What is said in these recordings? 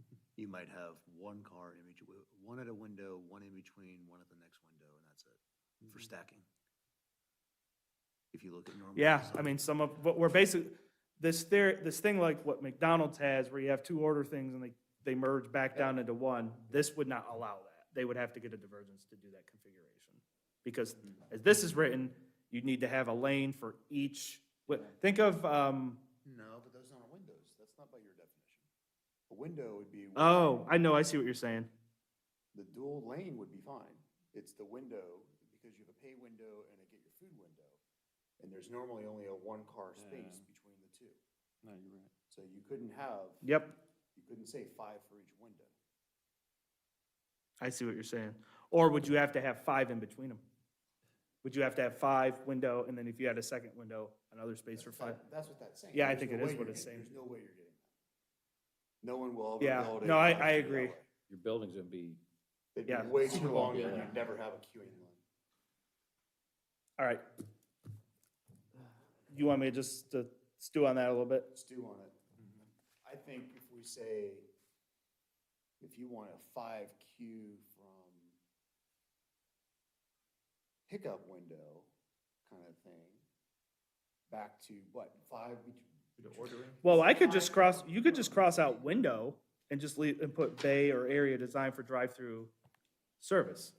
Mm-hmm. you might have one car in between, one at a window, one in between, one at the next window, and that's it Mm-hmm. for stacking. If you look at normal. Yeah, I design. mean, some of, but we're basically, this theory, this thing like what McDonald's has, where you have two order things and they, they merge back down into one, this would not allow that. They would have to get a divergence to do that configuration. Because as this is written, you need to have a lane for each, what, think of, um, No, but those aren't windows. That's not by your definition. A window would be. oh, I know, I see what you're saying. The dual lane would be fine. It's the window, because you have a pay window and a get your food window. And there's normally only a one-car space between the two. No, you're right. So you couldn't have, Yep, you couldn't say five for each window. I see what you're saying. Or would you have to have five in between them? Would you have to have five window, and then if you had a second window, another space for five? That- That's what that's saying. Yeah, I There's think no it is way what you're it's getting- saying. There's no way you're getting that. No one will ever Yeah, build a. no, I- drive-through I that agree. way. Your building's gonna be, It'd Yeah. be way too long, Yeah. and you'd never have a queuing line. All right. You want me to just uh, stew on that a little bit? stew on it. Mm-hmm. I think if we say, if you want a five Q from pickup window kind of thing, back to what, five? Ordering? Well, I could just cross, you could just cross out window and just leave, and put bay or area designed for drive-through service.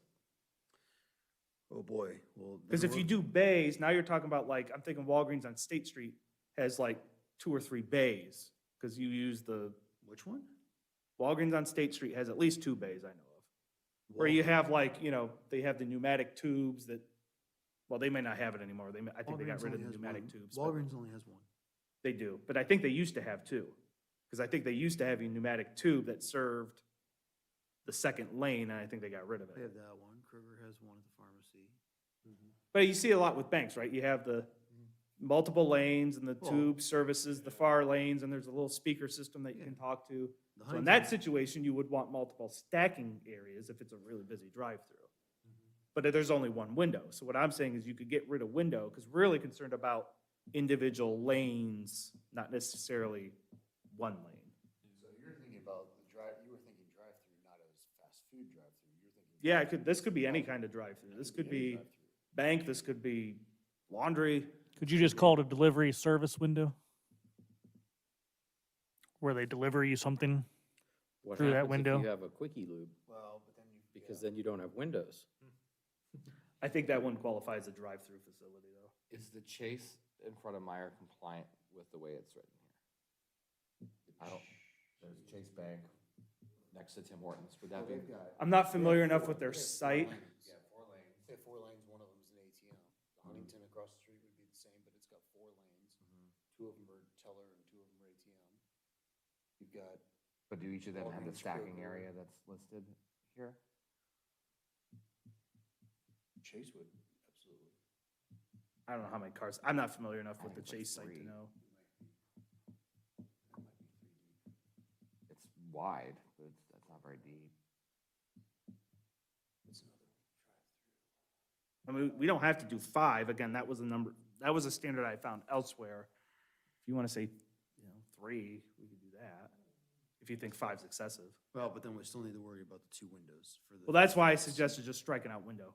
Oh, boy, well. Because if you do bays, now you're talking about like, I'm thinking Walgreens on State Street has like two or three bays. Because you use the, Which one? Walgreens on State Street has at least two bays I know of. Where you have like, you know, they have the pneumatic tubes that, well, they may not have it anymore. They, may- I think they got rid of the pneumatic tubes. but- Walgreens only has one. They do, but I think they used to have two. Because I think they used to have a pneumatic tube that served the second lane, and I think they got rid of They it. have that one. Kroger has one at the pharmacy. But you see a lot with banks, right? You have the multiple lanes and the Mm-hmm. Well- tube services the far lanes, and there's a little speaker system that you can talk to. The So in Huntington- that situation, you would want multiple stacking areas if it's a really busy drive-through. Mm-hmm. But there's only one window. So what I'm saying is you could get rid of window, because we're really concerned about individual lanes, not necessarily one lane. So you're thinking about the drive, you were thinking drive-through, not as fast food drive-through. You're thinking. Yeah, it could, this could be any kind of drive-through. This could be bank, this could be laundry. Could you just call it a delivery service window? Where they deliver you something? what Through that happens if window. you have a quickie loop? Well, but then you. Because then you don't have windows. I think that one qualifies a drive-through facility, though. Is the Chase in front of Meyer compliant with the way it's written here? I don't, there's Chase Bank next to Tim Hortons, would that be? I'm not familiar enough with their site. Mm-hmm. Yeah, four lanes. They have four lanes, one of them's an ATM. The Huntington across the street would be the same, but it's got four lanes. Mm-hmm. Two of them are teller and two of them are ATM. You've got, But do each of them have Walgreens, the stacking Kroger. area that's listed here? Chase would, absolutely. I don't know how many cars, I'm not familiar enough with the think like Chase site to three. know. It's wide, but it's, that's not very deep. It's another drive-through. I mean, we don't have to do five. Again, that was a number, that was a standard I found elsewhere. If you want to say, you know, three, we could do that. If you think five's excessive. Well, but then we still need to worry about the two windows for the. Well, that's why I suggested just striking out window.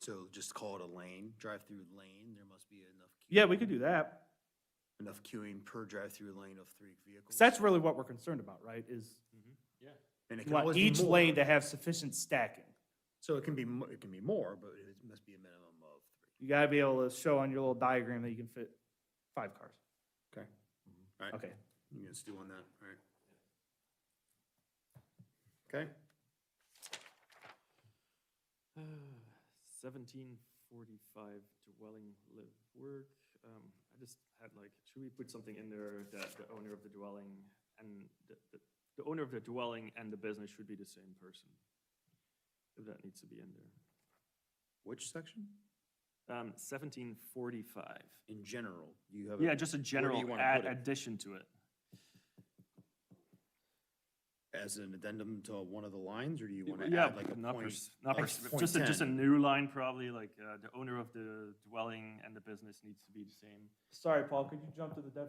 So just call it a lane, drive-through lane. There must be enough. Yeah, we could do that. Enough queuing per drive-through lane of three vehicles. 'Cause that's really what we're concerned about, right? Is And it you can want always be each more. lane to have sufficient stacking. So it can be, mo- it can be more, but it must be a minimum of three. You gotta be able to show on your little diagram that you can fit five cars. Okay. Mm-hmm. All right. Okay, You guys do on that, all right? Okay, Seventeen forty-five dwelling live work. Um, I just had like, should we put something in there that the owner of the dwelling and the, the, the owner of the dwelling and the business should be the same person? If that needs to be in there. which section? Um, seventeen forty-five. In general, you have. a- Yeah, just a general wanna add put it? addition to it. As an addendum to one of the lines, or do you want to Yeah, add like a not point? pers- Not, like pers- point just a, just a 10? new line probably, like, uh, the owner of the dwelling and the business needs to be the same. sorry, Paul, could you jump to the definition